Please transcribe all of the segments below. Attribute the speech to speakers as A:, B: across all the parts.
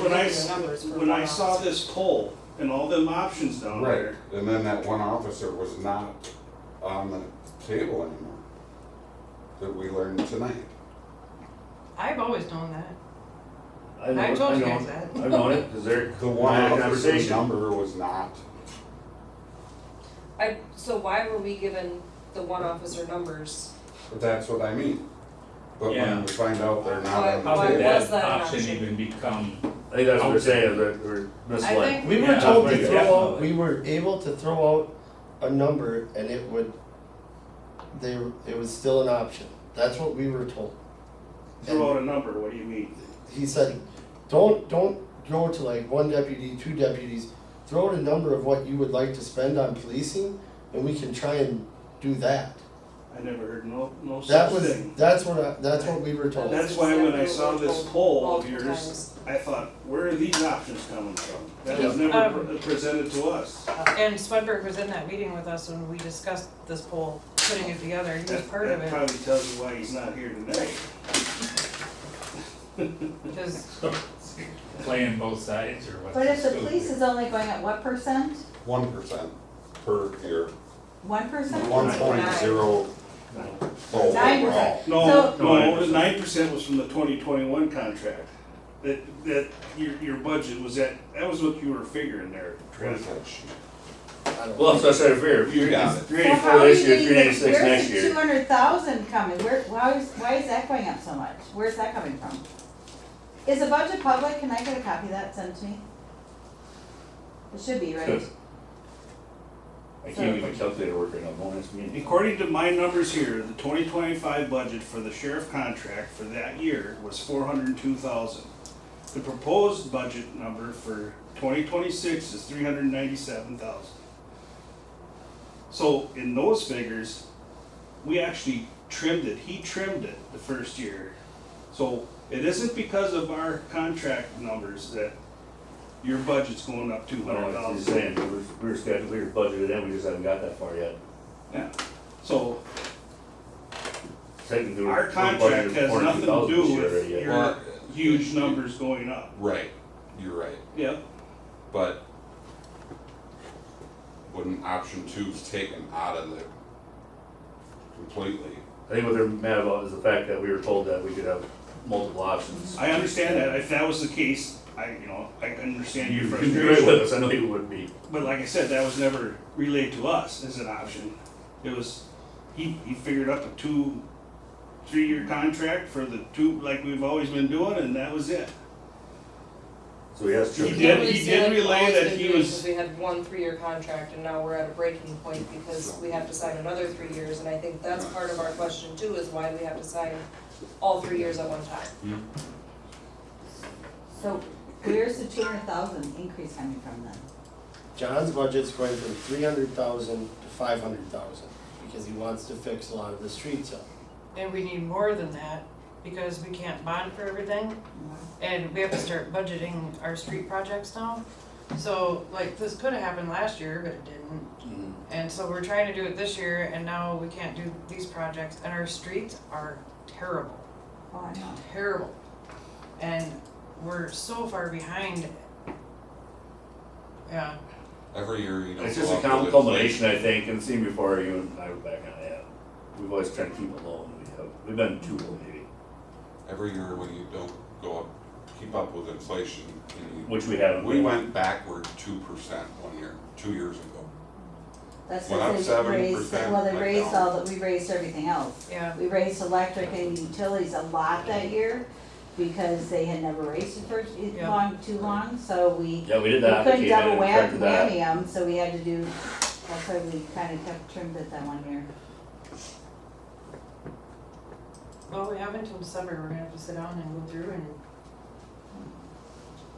A: when I, s-
B: regular numbers for
A: when I
B: one
A: saw
B: officer.
A: this poll and all them options down
C: Right,
A: there,
C: and then that one officer was not on the table anymore, that we learned tonight.
D: I've always known that.
E: I know,
D: I
E: it,
D: told
E: I
D: you
E: know,
D: guys
E: it.
D: that.
E: I know it, cause they're,
C: The one
E: had a
C: officer's
E: conversation.
C: number was not,
B: I, so why were we given the one officer numbers?
C: but that's what I mean. But
F: Yeah.
C: when we find out they're not
B: Why-
C: on
B: why
C: the
F: How did
C: table.
B: was
F: that
B: that an
F: option
B: option?
F: even become,
E: I think that's what they're saying, that we're misled.
D: I think-
G: We were
F: Yeah,
G: told to
F: right,
G: throw out,
F: definitely.
G: we were able to throw out a number and it would, they, it was still an option. That's what we were told.
A: throw out a number, what do you mean?
G: He said, don't, don't go to like one deputy, two deputies, throw out a number of what you would like to spend on policing and we can try and do that.
A: I never heard no, no
G: That
A: such
G: was,
A: thing.
G: that's what I, that's what we were told.
A: That's why when I saw this poll of
B: Multiple
A: yours,
B: times.
A: I thought, where are these options coming from? That was
D: Yeah.
A: never
D: Um,
A: pre- presented to us.
D: uh, And Swedberg was in that meeting with us when we discussed this poll, putting it together, he was
A: That
D: part of
A: that
D: it,
A: probably tells you why he's not here today.
D: because,
F: playing both sides or what's?
H: But if the
F: scoop
H: police
F: here?
H: is only going at what percent?
C: One percent per year,
H: One percent?
C: one point zero
H: Nine
C: overall.
H: percent.
A: No,
H: So-
A: no, nine percent was from the twenty twenty-one contract. That, that, your, your budget was at, that was what you were figuring there, Trent.
G: I don't-
E: Well, so I said, fair,
C: You got it.
H: So
E: three
H: how
E: eighty-four
H: are you
E: this year,
H: getting
E: three
H: the-
E: ninety-six next
H: Where's the two
E: year.
H: hundred thousand coming? Where, why is, why is that going up so much? Where's that coming from? Is the budget public? Can I get a copy of that sent to me? It should be, right?
E: Good. I can't get my calculator working on bonus meeting.
A: According to my numbers here, the twenty twenty-five budget for the sheriff contract for that year was four hundred and two thousand. The proposed budget number for twenty twenty-six is three hundred and ninety-seven thousand. So in those figures, we actually trimmed it, he trimmed it the first year. So it isn't because of our contract numbers that your budget's going up two
E: I don't
A: hundred
E: know, I'm
A: thousand.
E: just saying, we were, we were scheduled, we were budgeted, and we just haven't got that far yet.
A: Yeah, so
E: Technically, we're-
A: Our
E: we're
A: contract
E: budgeted
A: has
E: for
A: nothing to
E: 40,000 this
A: do
E: year
A: with
E: already, yeah.
A: your-
C: Well,
A: huge numbers going up.
C: Right, you're right,
A: Yep.
C: but wouldn't option two's taken out of the completely?
E: I think what they're mad about is the fact that we were told that we could have multiple options.
A: I understand that. If that was the case, I, you know, I can understand your
E: You'd be great with
A: frustration.
E: us, I know you would be.
A: But like I said, that was never relayed to us as an option. It was, he, he figured up a two, three-year contract for the two, like we've always been doing, and that was it.
E: So he has
A: He
E: to.
A: did-
B: Can't really
A: he
B: say
A: did
B: like
A: relay
B: all it's
A: that
B: been
A: he
B: doing
A: was-
B: since We had one three-year contract and now we're at a breaking point because we have to sign another three years. And I think that's part of our question too, is why we have to sign all three years at one time.
H: So where's the two hundred thousand increase coming from then?
G: John's budget's going from three hundred thousand to five hundred thousand, because he wants to fix a lot of the streets up.
D: and we need more than that, because we can't bond for everything, and we have to start budgeting our street projects now. So, like, this could have happened last year, but it didn't, and so we're trying to do it this year, and now we can't do these projects, and our streets are terrible.
H: Oh, I know.
D: terrible. And we're so far behind. Yeah,
C: Every year, you know.
E: It's
C: go
E: just a
C: up with
E: com-
C: it.
E: culmination, I think, and seeing before you and I were back on that. We've always tried to keep it low, and we have, we've been too low maybe,
C: Every year when you don't go up, keep up with inflation, and you,
E: which we haven't.
C: we went backward two percent one year, two years ago.
H: That's
C: Went up
H: because they raised,
C: 7%,
H: well, they
C: went
H: raised
C: down.
H: all, that we raised everything else.
D: yeah.
H: We raised electric and utilities a lot that year because they had never raised it for too
D: Yeah.
H: long, too long, so we
E: Yeah, we
H: we
E: did that, we
H: couldn't
E: came in
H: double
E: and
H: wham-
E: corrected that.
H: whammy them, so we had to do, that's why we kinda kept trimmed it that one year.
D: Well, we have until December. We're gonna have to sit down and go through and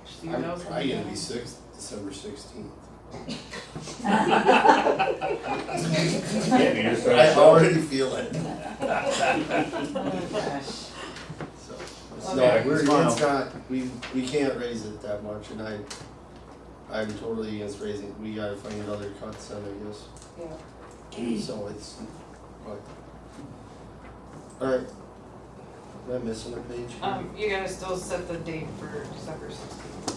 D: see what
G: I'm
D: else. we
G: probably gonna
D: can.
G: be sixth, December sixteenth.
E: Yeah, we just
G: I
E: started.
G: already feel it,
H: Oh, gosh.
G: so.
D: Okay.
G: No, we're,
E: Smile.
G: it's not, we, we can't raise it that much, and I, I'm totally against raising, it. we gotta find another cut then, I guess,
B: Yeah.
G: so it's, but. Alright, am I missing a page?
D: Um, you gotta still set the date for December sixteenth.